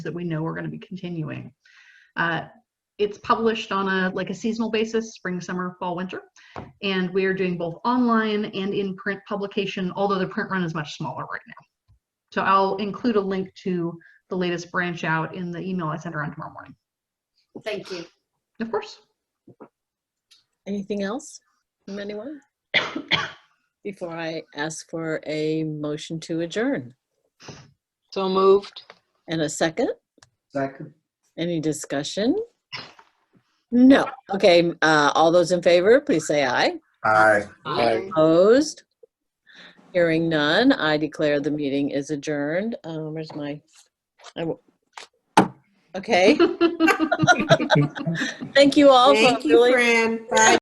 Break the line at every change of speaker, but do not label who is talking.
that we know we're going to be continuing. Uh, It's published on a, like a seasonal basis, spring, summer, fall, winter. And we are doing both online and in print publication, although the print run is much smaller right now. So I'll include a link to the latest branch out in the email I send around tomorrow morning.
Thank you.
Of course.
Anything else from anyone? Before I ask for a motion to adjourn
So moved.
and a second,
Second.
any discussion? No. Okay, uh, all those in favor, please say aye.
Aye.
Aye.
Opposed? Hearing none, I declare the meeting is adjourned. Uh, Where's my? I w- Okay, thank you all. for
Thank you,
really-
Fran. Bye.